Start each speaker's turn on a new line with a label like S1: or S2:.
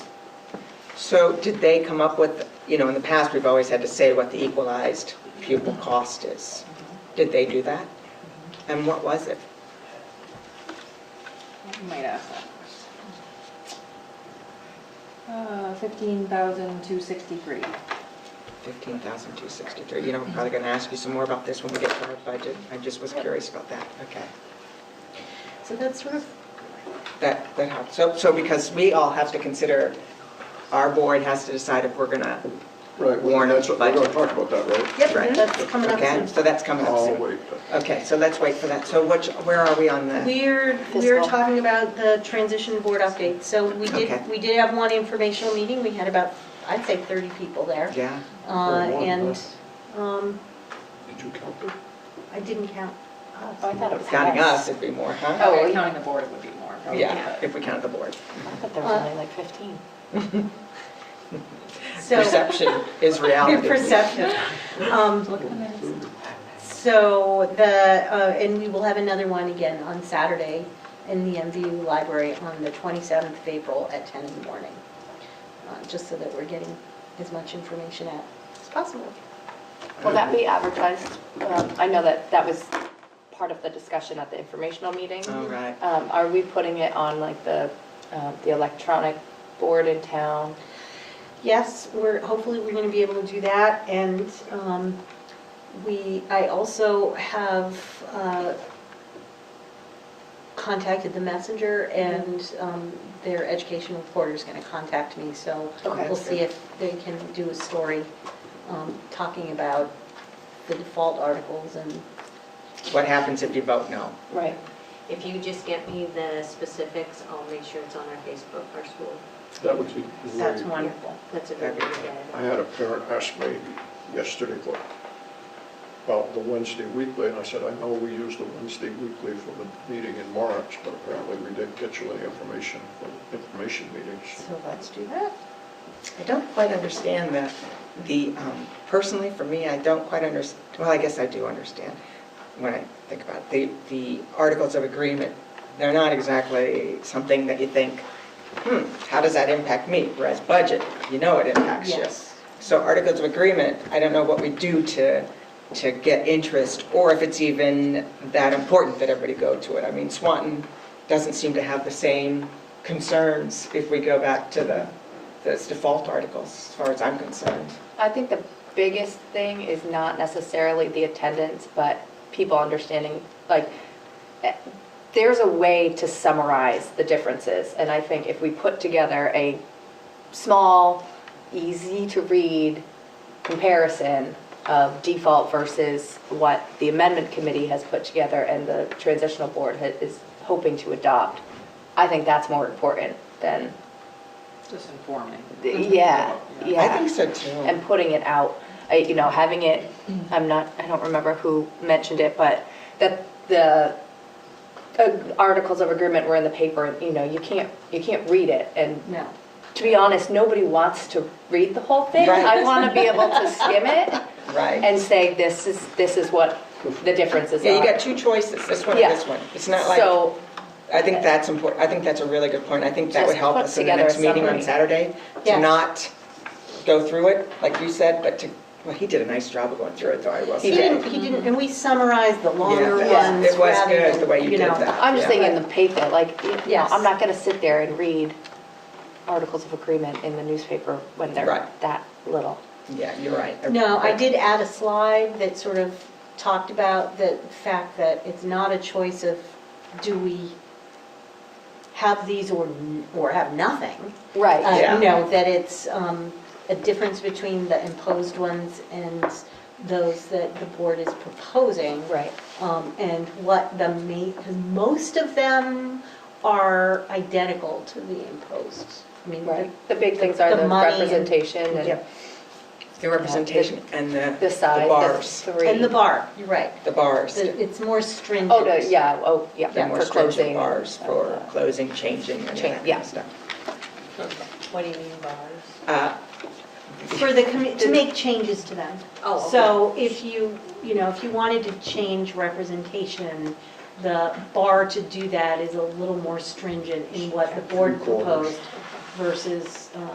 S1: So did they come up with, you know, in the past, we've always had to say what the equalized pupil cost is. Did they do that? And what was it?
S2: Might ask that question. Uh, fifteen thousand two sixty-three.
S1: 15,263. You know, I'm probably going to ask you some more about this when we get to our budget. I just was curious about that. Okay.
S3: So that's sort of,
S1: That, that helps. So, so because we all have to consider, our board has to decide if we're going to.
S4: Right, well,
S1: Warren
S4: that's, what- we're
S1: budget.
S4: gonna talk about that, right?
S3: yep,
S1: Right.
S3: that's coming up
S1: Okay,
S3: soon.
S1: so that's coming up
S4: Oh,
S1: soon.
S4: wait,
S1: Okay, so let's wait for that. So which, where are we on the?
S3: We're, we're
S2: Fiscal.
S3: talking about the transition board update. So we
S1: Okay.
S3: did, we did have one informational meeting. We had about, I'd say 30 people there.
S1: Yeah,
S3: Uh,
S4: Very long,
S3: And um,
S4: did you count them?
S3: I didn't count.
S2: Oh, I thought it was
S1: counting us, it'd be more, huh?
S2: Oh, yeah, counting the board, it would be more. probably,
S1: Oh, Yeah,
S2: but-
S1: if we count the board.
S5: I thought there was only like 15.
S3: So,
S1: Perception is reality.
S3: perception. Um, So the, uh, and we will have another one again on Saturday in the MVU library on the 27th of April at 10 in the morning, Uh, just so that we're getting as much information out as possible.
S5: Will that be advertised? Um, I know that that was part of the discussion at the informational meeting.
S1: All right.
S5: Um, Are we putting it on like the, um, the electronic board in town?
S3: Yes, we're, hopefully, we're going to be able to do that, and um, we, I also have uh, contacted the messenger, and um, their education reporter is going to contact me, so
S5: Okay.
S3: we'll see if they can do a story um, talking about the default articles and
S1: What happens if you vote no?
S5: Right.
S6: If you just get me the specifics, I'll make sure it's on our Facebook, our school.
S4: That would be
S3: that's
S4: great.
S3: wonderful.
S6: That's a good way to get it.
S4: I had a parent ask me yesterday what- about the Wednesday weekly, and I said, I know we used the Wednesday weekly for the meeting in March, but apparently we didn't get you any information for the information meetings.
S3: So let's do that.
S1: I don't quite understand the, the, um, personally, for me, I don't quite under, well, I guess I do understand when I think about it. The, the articles of agreement, they're not exactly something that you think, hmm, how does that impact me? Whereas budget, you know it impacts you.
S3: Yes.
S1: So articles of agreement, I don't know what we do to, to get interest, or if it's even that important that everybody go to it. I mean, Swanton doesn't seem to have the same concerns if we go back to the, those default articles, as far as I'm concerned.
S5: I think the biggest thing is not necessarily the attendance, but people understanding, like, eh, there's a way to summarize the differences. And I think if we put together a small, easy-to-read comparison of default versus what the amendment committee has put together and the transitional board ha- is hoping to adopt, I think that's more important than,
S2: Just informing.
S5: yeah, yeah
S1: I think so
S5: and
S1: too.
S5: putting it out, I- you know, having it,
S1: Mm-hmm.
S5: I'm not, I don't remember who mentioned it, but that the uh, articles of agreement were in the paper, and, you know, you can't, you can't read it. And
S3: No.
S5: to be honest, nobody wants to read the whole thing.
S1: Right.
S5: I want to be able to skim it
S1: Right.
S5: and say, this is, this is what the differences are.
S1: Yeah, you got two choices, this one
S5: Yeah.
S1: and this one. It's not like,
S5: So,
S1: I think that's important, I think that's a really good point. I think that would
S5: Just
S1: help
S5: put
S1: us in the
S5: together a
S1: next meeting on
S5: summary.
S1: Saturday, to
S3: Yes.
S1: not go through it, like you said, but to, well, he did a nice job of going through it, though, I will
S3: He
S1: say.
S3: didn't, he didn't, and we summarized the longer
S1: Yeah,
S3: ones
S1: it was-
S3: rather than,
S1: It was good, the way you did
S3: know,
S1: that.
S5: I'm just
S1: yeah.
S5: thinking the paper, like, you know,
S3: Yes.
S5: I'm not going to sit there and read articles of agreement in the newspaper when they're
S1: Right.
S5: that little.
S1: Yeah, you're right.
S3: No, I did add a slide that sort of talked about the fact that it's not a choice of, do we have these or, n- or have nothing?
S5: Right.
S3: Uh,
S1: Yeah.
S3: You know, that it's um, a difference between the imposed ones and those that the board is proposing.
S5: Right.
S3: um, and what the main, because most of them are identical to the imposed. I mean, the-
S5: Right. The big things are
S3: The
S5: the
S3: money and-
S5: representation and
S1: Yep. The representation and the.
S5: the size,
S1: bars,
S5: the three.
S3: and the bar, you're right.
S1: the bars.
S3: The- It's more stringent.
S5: Oh, the, yeah, oh,
S1: The
S5: yeah,
S1: more
S5: for
S1: stringent
S5: closing. uh,
S1: bars for closing, changing, and
S5: Change,
S1: that kind
S5: yeah.
S1: of stuff.
S6: What do you mean bars?
S1: Uh,
S3: For the, commi- to make changes to them.
S6: Oh, okay.
S3: So if you, you know, if you wanted to change representation, the bar to do that is a little more stringent in what the board
S4: Three quarters.
S3: proposed versus uh,